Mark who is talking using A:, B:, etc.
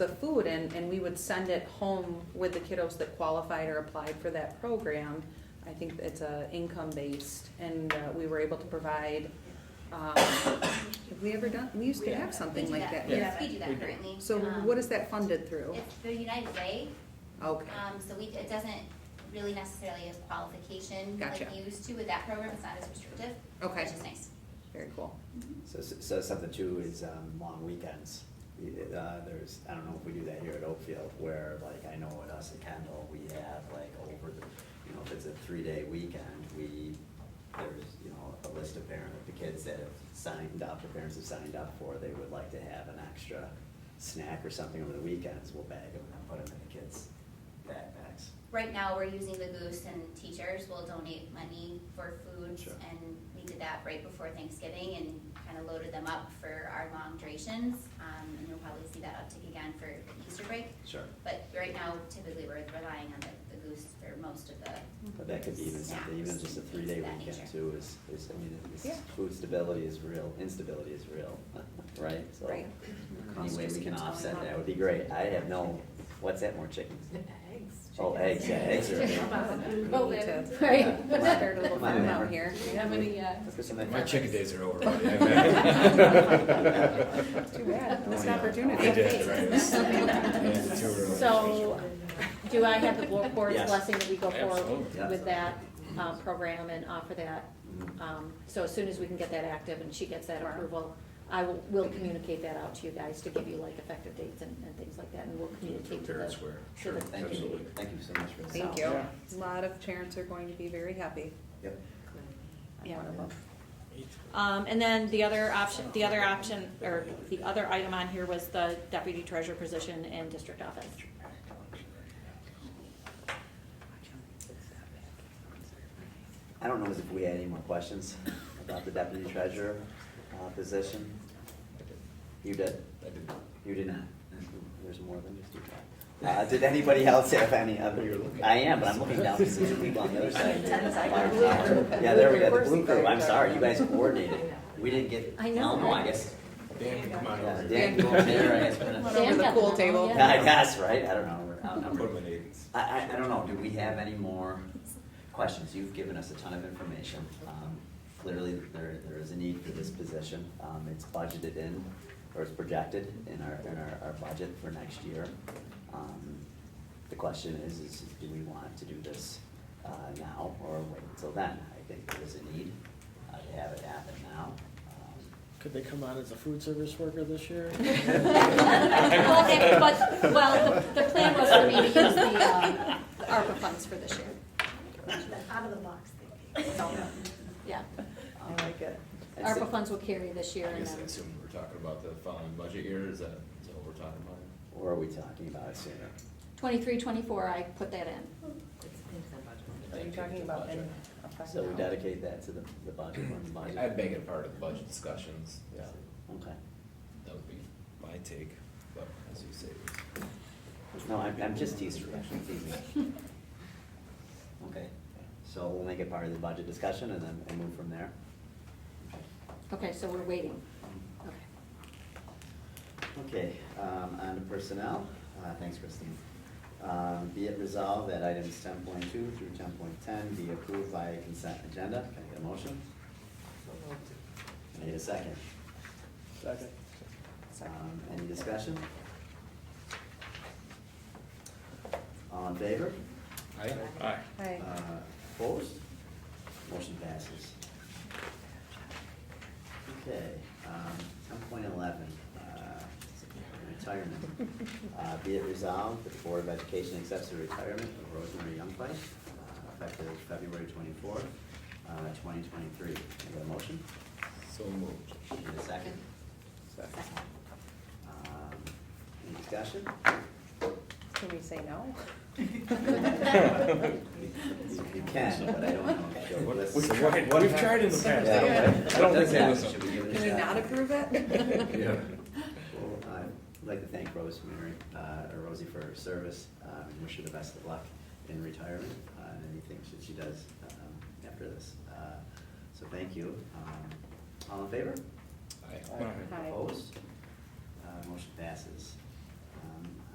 A: the food and, and we would send it home with the kiddos that qualified or applied for that program. I think it's a income-based and uh, we were able to provide, um, have we ever done, we used to have
B: We
A: something
B: do
A: like
B: that,
A: that.
B: yes, we
A: yeah.
B: do
C: We
B: that
C: do.
B: currently.
A: So
B: Um,
A: what is that funded through?
B: It's the United Way,
A: Okay,
B: um, so we, it doesn't really necessarily a qualification like
A: Gotcha.
B: you used to with that program, it's not as restrictive,
A: Okay.
B: which is nice.
A: very cool.
D: So, so something too is, um, long weekends. Uh, there's, I don't know if we do that here at Oakfield, where like, I know with us at Kendall, we have like over the, you know, if it's a three-day weekend, we, there's, you know, a list of parents, the kids that have signed up, the parents have signed up for, they would like to have an extra snack or something over the weekends, we'll bag them and put them in the kids' backpacks.
B: Right now, we're using the Goose and teachers will donate money for food.
D: Sure.
B: And we did that right before Thanksgiving and kind of loaded them up for our long durations. Um, and you'll probably see that uptick again for the Easter break.
D: Sure.
B: But right now, typically, we're relying on the, the Goose for most of the.
A: Mm-hmm.
D: But that could be even something, even
B: snacks
D: just a
B: and things
D: three-day
B: of that
D: weekend
B: nature.
D: too is, is, I mean, it's-
A: Yeah.
D: food stability is real, instability is real, right? So
A: Right.
D: Any
A: Cost
D: way
A: just
D: we can
A: keeps going
D: offset
A: up.
D: that would be great. I have no, what's that, more chickens?
E: Eggs.
D: Oh, eggs, yeah, eggs are.
A: We need to
E: Right.
A: Start a little
D: My
A: farm out
D: memory.
A: here.
E: How many, uh,
D: Let's go somewhere
C: My
D: different.
C: chicken days are over. buddy. I bet.
A: Too bad, missed opportunity.
C: I Oh, did, right. Yeah, too early.
E: So, do I have the board- board's
D: Yes.
E: blessing that we go forward
C: Absolutely.
E: with that, uh, program and offer that?
D: Mm-hmm.
E: Um, so as soon as we can get that active and she gets that
A: Tomorrow.
E: approval, I will, will communicate that out to you guys to give you like effective dates and, and things like that, and we'll communicate to the.
C: Parents were.
E: to
C: Sure,
E: the-
D: Thank you,
C: absolutely.
D: thank you so much for that.
A: Thank you.
E: Yeah.
A: A lot of parents are going to be very happy.
D: Yep.
E: Yeah.
D: Wonderful.
E: Um, and then the other option, the other option, or the other item on here was the deputy treasurer position in district office.
D: I don't know if we had any more questions about the deputy treasurer uh, position. You did?
C: I did.
D: You did not. There's more than just you. Uh, did anybody else have any other? I am, but I'm looking down to see the people on the other side. Yeah, there we go, the blue crew. I'm sorry, you guys coordinated. We didn't get, I
E: I
D: don't
E: know,
D: know, I
E: right?
D: guess.
C: Dan, come on
D: Yeah,
C: over
D: Dan,
C: here.
D: go over there, I guess. put a-
A: Went over the pool
E: Dan got them all,
A: table.
E: yeah.
D: I guess, right? I don't know, we're
C: Put him
D: outnumbered.
C: in Aiden's.
D: I, I, I don't know, do we have any more questions? You've given us a ton of information. Um, Clearly, there, there is a need for this position. Um, it's budgeted in, or it's projected in our, in our, our budget for next year. Um, The question is, is do we want to do this, uh, now or wait until then? I think there is a need, uh, to have it happen now. Um,
F: Could they come out as a food service worker this year?
E: Well, they- but, well, the, the plan was for me to use the, uh, ARPA funds for this year,
G: Out of the box thinking.
E: so, yeah.
D: um,
A: it.
D: and so-
E: ARPA funds will carry this year
C: I
E: and
C: guess I
E: then.
C: assume we're talking about the following budget year, is that, is that what we're talking about?
D: Or are we talking about it sooner?
E: Twenty-three, twenty-four, I put that in.
A: Are you talking about in? effect
D: So we
A: now?
D: dedicate that to the, the budget, when the budget.
C: I'd make it a part of the budget discussions, yeah,
D: Okay.
C: that would be my take, but as you say.
D: No, I'm, I'm just teasing, you, I'm teasing. you. Okay, so we'll make it part of the budget discussion and then and move from there.
E: Okay, so we're waiting. Okay.
D: Okay, um, on to personnel, uh, thanks Christine. Um, be it resolved that items ten point two through ten point ten be approved by consent agenda, can I get a motion? I need a second.
F: Second.
D: Um, any discussion? All in favor?
C: Aye. Aye.
A: Hi.
D: Uh, Opposed? Motion passes. Okay, um, ten point eleven, uh, retirement. Uh, be it resolved that the Board of Education accepts the retirement of Rosemary Youngfight, uh, effective February twenty-fourth, uh, twenty twenty-three. Can I get a motion?
C: So moved.
D: Need a second? Second. Um, any discussion?
A: Can we say no?
D: You you can, but I don't know if you'll listen.
C: We've tried in the past.
D: Yeah,
A: Yeah.
D: what- what does that- should give it a
A: Can we
D: shot?
A: not approve it?
C: Yeah.
D: Well, I'd like to thank Rosemary, uh, or Rosie for her service, uh, and wish her the best of luck in retirement, uh, and anything that she does, um, after this. Uh, So thank you. Um, All in favor?
C: Aye.
A: Aye.
D: Opposed? Uh, motion passes. Um,